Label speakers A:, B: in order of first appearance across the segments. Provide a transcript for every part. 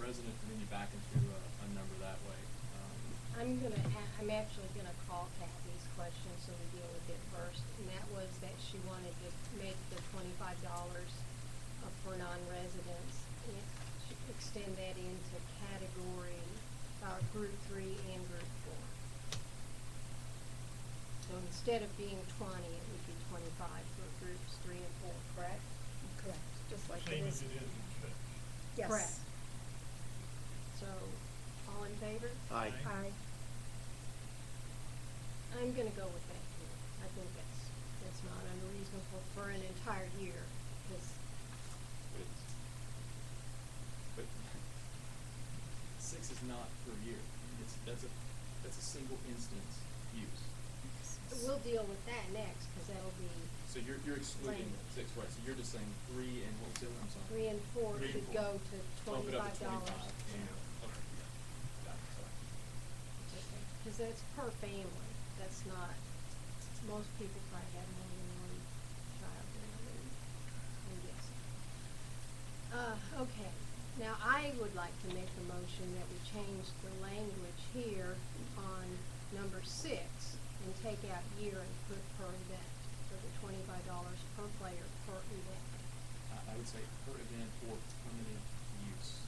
A: resident community back into a, a number that way. Um,
B: I'm gonna, a- I'm actually gonna call Kathy's question, so we deal with it first, and that was that she wanted to make the twenty-five dollars uh, for non-residents, and she could extend that into category, uh, group three and group four. So instead of being twenty, it would be twenty-five for groups three and four, correct?
C: Correct, just like it
D: Same as
C: is.
D: it is in church.
C: Yes.
B: Correct. So, all in favor?
E: Aye.
C: Aye.
B: I'm gonna go with that too. I think that's, that's not unreasonable for an entire year, 'cause
A: it's- But six is not per year. It's, that's a, that's a single instance use.
B: we'll deal with that next, cause that'll be
A: So you're, you're excluding
B: Right.
A: six, right? So you're just saying three and what was the other one? I'm sorry.
B: three and four
A: Three and
B: should
A: four.
B: go to
A: Bump it up
B: twenty-five
A: to
B: dollars.
A: 25, and- okay, yeah. Got it, sorry.
B: Cause that's per family, that's not, most people probably have more than one child, you know, they- I'm guessing. Uh, okay, now I would like to make a motion that we change the language here on number six and take out year and put per event, for the twenty-five dollars per player per event.
A: I, I would say per event or permitted use.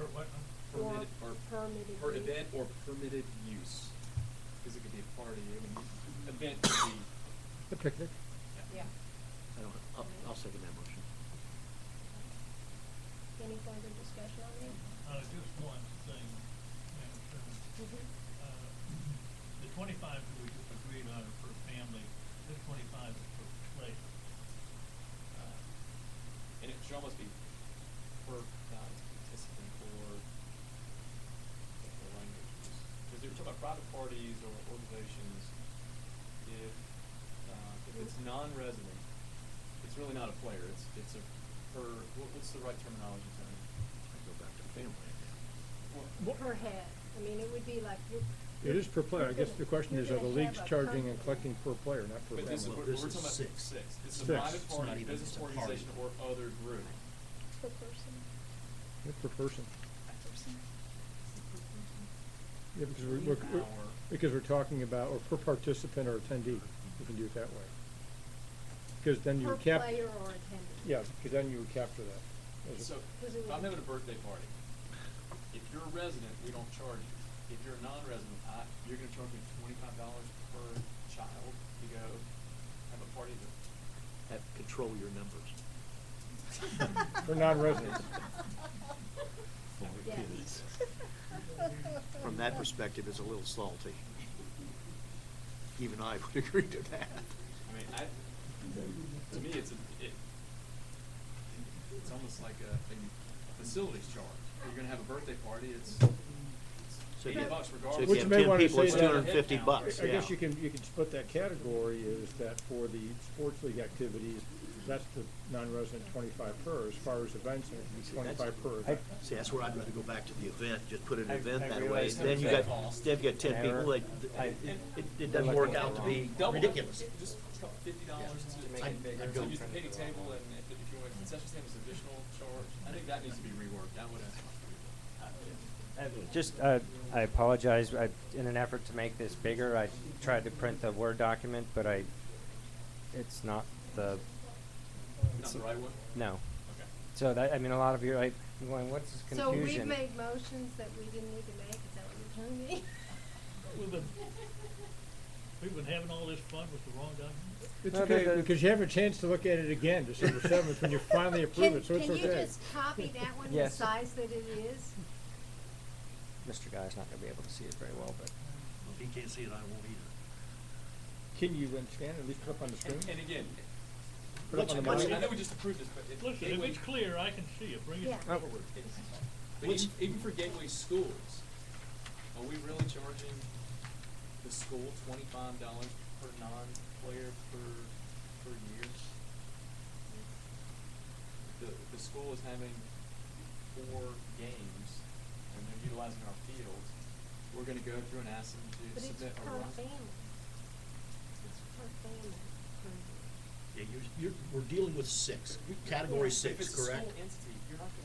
D: Or what?
B: Or
A: Permitted, or.
B: permitted
A: Per
B: use.
A: event or permitted use. Cause it could be a party, I mean, event could be,
E: A picnic?
B: Yeah.
E: I don't, I'll, I'll second that motion.
B: Any further discussion on that?
D: Uh, just one thing, Madam Chairman.
B: Mhm.
C: Mm-hmm.
D: Uh, The twenty-five that we agreed on are per family, this twenty-five is per player. Uh,
A: and it should almost be uh, per, not participant or the language use. Cause if you're talking about private parties or organizations, if, uh, if it's non-resident, it's really not a player, it's, it's a per, what, what's the right terminology, Tony?
E: I go back to family again.
A: What-
B: Per head, I mean, it would be like you're.
F: It is per player. I guess the question
B: you're
F: is, are the
B: gonna
F: leagues
B: have a
F: charging
B: per-
F: and collecting per player, not per
A: But
F: family?
A: this is,
E: Well,
A: we're, we're
E: this
A: talking
E: is
A: about
E: six.
A: six. This is a
F: Six.
A: private
F: It's
E: not
A: party,
E: even-
A: business
E: it's a party.
A: organization, or other group.
C: Per person,
F: It's per person.
C: per person. Mm-hmm.
F: Yeah, because we're, we're- we're-
A: Hour.
F: because we're talking about, or per participant or attendee, you can do it that way. Because then you
B: Per
F: would cap.
B: player or attendee.
F: Yeah, because then you would capture that. As a-
A: So,
B: Because it
A: if I'm
B: would-
A: having a birthday party, if you're a resident, we don't charge you. If you're a non-resident, I, you're gonna charge me twenty-five dollars per child to go have a party that.
E: Have, control your numbers.
F: For non-residents.
E: For
B: Yes.
E: kids. From that perspective, it's a little salty. Even I would agree to that.
A: I mean, I, to me, it's a, it, it's almost like a, a facilities charge. You're gonna have a birthday party, it's it's
E: So if
A: eighty
E: you-
A: bucks regardless.
E: So if
F: Which
E: you have
F: may
E: ten
F: wanna
E: people,
F: say
E: it's two
F: that-
E: hundred and fifty
A: I-
E: bucks,
F: I guess
E: yeah.
F: you can, you can split that category is that for the sports league activities, that's the non-resident twenty-five per. As far as events, it would be
E: See, that's-
F: twenty-five per event.
E: See, that's where I'd rather go back to the event, just put an
G: I-
E: event
G: I
E: that way,
G: realize
E: then you
A: that
E: got,
A: cost.
E: then you got ten people, like,
G: I-
E: it, it- it doesn't work out to be
A: Double it.
E: ridiculous.
A: Just fifty dollars to.
G: To make it
A: I'd-
G: bigger.
A: I'd go
G: I'd
A: use the
G: go-
A: picnic table and if, if you want a concession stand as additional charge, I think that needs to be reworked, that would have.
G: Uh, Just, uh, I apologize, I, in an effort to make this bigger, I tried to print the Word document, but I, it's not the,
A: Not the right one?
G: no.
A: Okay.
G: So that, I mean, a lot of you, I, I'm going, what's this
B: So we've
G: confusion?
B: made motions that we didn't need to make, is that what you're telling me?
D: We've been, we've been having all this fun with the wrong document.
F: It's
G: No, the-
F: okay,
G: the-
F: because you have a chance to look at it again December seventh when you finally approve
B: Can-
F: it, so it's okay.
B: Can you just copy that one the
G: Yes.
B: size that it is?
G: Mr. Guy's not gonna be able to see it very well, but.
E: If he can't see it, I won't either.
F: Can you then scan, at least put up on the
A: And,
F: screen?
A: and again,
F: Put up
E: What's-
A: I
F: on the
E: what's-
F: monitor?
A: mean, I know we just approved this, but it.
D: Listen, if
A: Gateway-
D: it's clear, I can see it, bring it
B: Yeah.
F: Oh,
D: forward.
A: it's- But
E: What's-
A: even, even for gateway schools, are we really charging the school twenty-five dollars per non-player per, per year? The, the school is having four games and they're utilizing our fields, we're gonna go through and ask them to
B: But it's per
A: submit a. roster.
B: family. It's per family. per year.
E: Yeah, you're, you're, we're dealing with six, category
A: If it's a
E: six, correct?
A: school entity, you're not gonna